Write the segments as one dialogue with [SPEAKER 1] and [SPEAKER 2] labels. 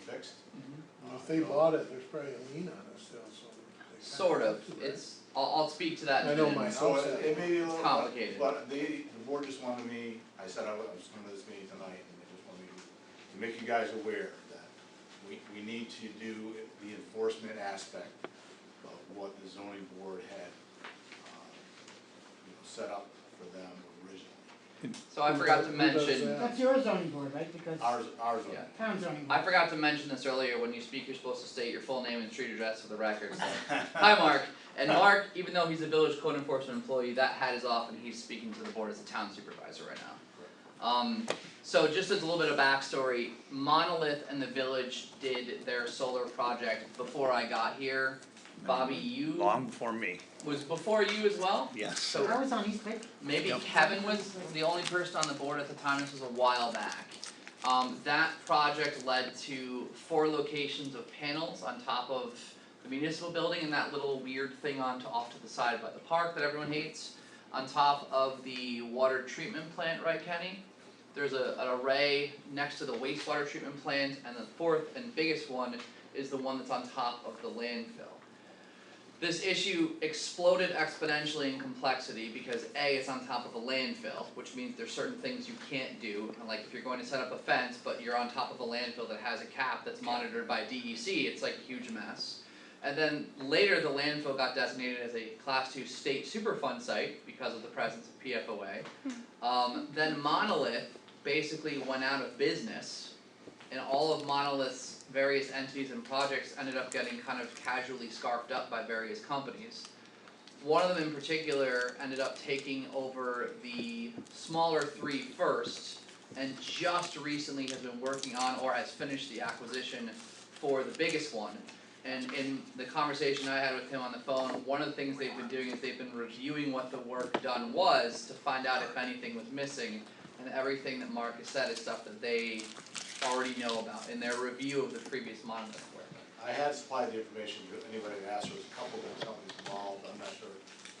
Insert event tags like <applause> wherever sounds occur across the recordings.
[SPEAKER 1] fixed.
[SPEAKER 2] Mm-hmm.
[SPEAKER 1] Well, If they bought it, there's probably a lien on it still, so. they kinda
[SPEAKER 3] Sort of,
[SPEAKER 1] have to, right?
[SPEAKER 3] it's, I'll, I'll speak to that
[SPEAKER 1] I
[SPEAKER 3] in a
[SPEAKER 1] know
[SPEAKER 3] minute.
[SPEAKER 1] my-
[SPEAKER 2] So it it may be a
[SPEAKER 3] It's
[SPEAKER 2] little,
[SPEAKER 3] complicated.
[SPEAKER 2] but, but they, the board just wanted me, I said I was I was coming to this meeting tonight, and they just wanted me to make you guys aware that we, we need to do the enforcement aspect of what the zoning board had, uh, you know, set up for them originally.
[SPEAKER 3] So I forgot to
[SPEAKER 1] Who does
[SPEAKER 3] mention,
[SPEAKER 1] that?
[SPEAKER 4] That's your zoning board, right, because
[SPEAKER 2] Ours, ours
[SPEAKER 3] Yeah.
[SPEAKER 2] are.
[SPEAKER 4] town zoning
[SPEAKER 3] I
[SPEAKER 4] board,
[SPEAKER 3] forgot to mention this earlier, when you speak, you're supposed to state your full name and street address for the record, so.
[SPEAKER 2] <laughs>
[SPEAKER 3] Hi, Mark, and Mark, even though he's a village code enforcement employee, that hat is off and he's speaking to the board as a town supervisor right now. Um, so just as a little bit of backstory, Monolith and the village did their solar project before I got here. Bobby,
[SPEAKER 2] Mm-hmm.
[SPEAKER 3] you,
[SPEAKER 5] Long before me,
[SPEAKER 3] was before you as well?
[SPEAKER 5] yes.
[SPEAKER 3] So-
[SPEAKER 4] I was on East Pick,
[SPEAKER 3] Maybe
[SPEAKER 5] Yep.
[SPEAKER 3] Kevin was the only person on the board at the time, this was a while back. Um, that project led to four locations of panels on top of the municipal building and that little weird thing on to off to the side by the park that everyone hates. On top of the water treatment plant, right Kenny? There's a, an array next to the wastewater treatment plant and the fourth and biggest one is the one that's on top of the landfill this issue exploded exponentially in complexity because A, it's on top of a landfill, which means there's certain things you can't do. And like if you're going to set up a fence, but you're on top of a landfill that has a cap that's monitored by DEC, it's like a huge mess. And then later, the landfill got designated as a class two state superfund site because of the presence of PFOA. Um, then Monolith basically went out of business and all of Monolith's various entities and projects ended up getting kind of casually scarfed up by various companies. One of them in particular ended up taking over the smaller three first and just recently has been working on or has finished the acquisition for the biggest one. And in the conversation I had with him on the phone, one of the things they've been doing is they've been reviewing what the work done was to find out if anything was missing. And everything that Mark has said is stuff that they already know about in their review of the previous monolith work.
[SPEAKER 2] I had supplied the information to anybody that asked, there was a couple of companies involved, I'm not sure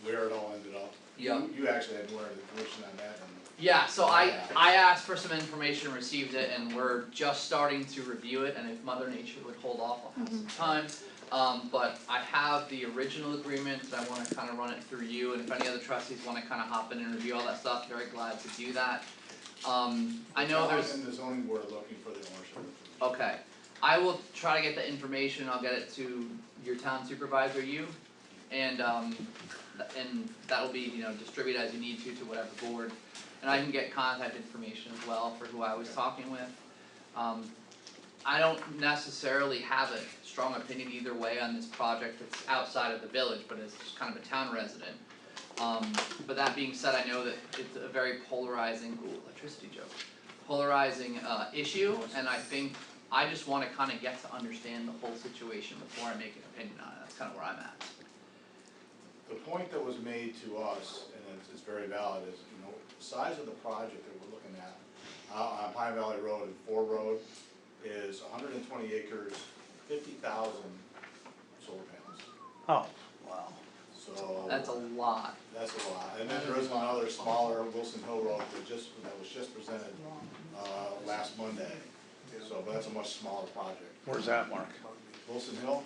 [SPEAKER 2] where it all ended up.
[SPEAKER 3] Yeah.
[SPEAKER 2] You, you actually had more information on that than
[SPEAKER 3] Yeah, so I I asked for some information, received it, and we're just starting to review it, and if Mother Nature would hold off, I'll have some time. Um but I have the original agreement that I wanna kinda run it through you, and if any other trustees wanna kinda hop in and review all that stuff, very glad to do that. Um I know
[SPEAKER 2] John
[SPEAKER 3] there's.
[SPEAKER 2] And the zoning board are looking for the ownership. information.
[SPEAKER 3] Okay, I will try to get the information, I'll get it to your town supervisor, you, and um, th- and that'll be, you know, distributed as you need to to whatever board. And I can get contact information as well for who I was talking with. Um, I don't necessarily have a strong opinion either way on this project, it's outside of the village, but it's just kind of a town resident. Um, but that being said, I know that it's a very polarizing, ooh, electricity joke polarizing uh issue and I think I just wanna kinda get to understand the whole situation before I make an opinion on it, that's kinda where I'm at.
[SPEAKER 2] The point that was made to us, and it's, it's very valid, is, you know, the size of the project that we're looking at, uh, on Pine Valley Road and Ford Road, is hundred and twenty acres, fifty thousand solar panels.
[SPEAKER 5] Oh, wow.
[SPEAKER 2] So,
[SPEAKER 3] That's a lot,
[SPEAKER 2] that's a lot, and then there is one other smaller, Wilson Hill Road, that just, that was just presented, uh, last Monday. So, but that's a much smaller project.
[SPEAKER 5] Where's that, Mark?
[SPEAKER 2] Wilson Hill,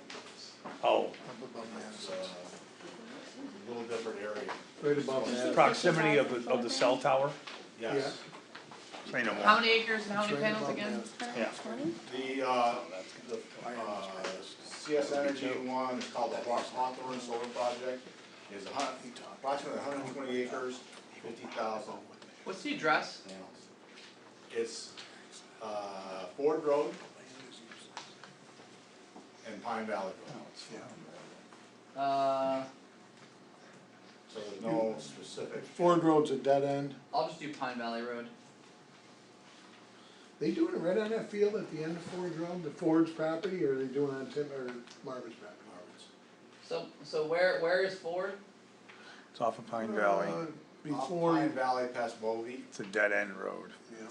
[SPEAKER 5] Oh,
[SPEAKER 1] Up above my
[SPEAKER 2] it's,
[SPEAKER 1] house.
[SPEAKER 2] uh, a little different area,
[SPEAKER 1] Right above that.
[SPEAKER 5] proximity of, the- of the cell tower,
[SPEAKER 1] Yeah.
[SPEAKER 2] yes.
[SPEAKER 5] say no
[SPEAKER 3] how
[SPEAKER 5] more.
[SPEAKER 3] many acres and how
[SPEAKER 1] It's
[SPEAKER 3] many
[SPEAKER 1] right
[SPEAKER 3] panels
[SPEAKER 1] above my
[SPEAKER 3] again?
[SPEAKER 1] house.
[SPEAKER 5] Yeah.
[SPEAKER 2] The, uh, the, uh, CS Energy one is called the Ross Hawthorne Solar Project, is a hun- approximately hundred and twenty acres, fifty thousand
[SPEAKER 3] What's the address?
[SPEAKER 2] panels. It's, uh, Ford Road and Pine Valley Road,
[SPEAKER 3] Uh,
[SPEAKER 2] so there's no specific.
[SPEAKER 1] Ford Road's a dead end.
[SPEAKER 3] I'll just do Pine Valley Road.
[SPEAKER 1] They doing it right on that field at the end of Ford Road, the Ford's property, or are they doing it on Tim, or Marvin's property?
[SPEAKER 3] So so where where is Ford?
[SPEAKER 5] It's off of Pine
[SPEAKER 1] Uh,
[SPEAKER 5] Valley,
[SPEAKER 2] Off
[SPEAKER 1] Before,
[SPEAKER 2] Pine Valley past Bovee,
[SPEAKER 5] it's a dead end road,
[SPEAKER 1] yeah.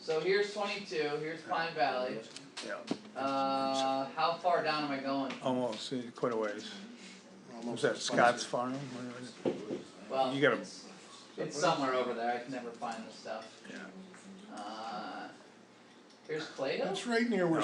[SPEAKER 3] So here's twenty two, here's Pine Valley,
[SPEAKER 5] yeah,
[SPEAKER 3] uh, how far down am I going?
[SPEAKER 5] almost, uh, quite a ways. Was
[SPEAKER 1] almost
[SPEAKER 5] that
[SPEAKER 1] sponsored.
[SPEAKER 5] Scott's Farm? Where is it?
[SPEAKER 3] Well,
[SPEAKER 5] You gotta-
[SPEAKER 3] it's it's somewhere over there, I can never find this stuff.
[SPEAKER 5] Yeah.
[SPEAKER 3] Uh, here's Clayton.
[SPEAKER 1] That's right near where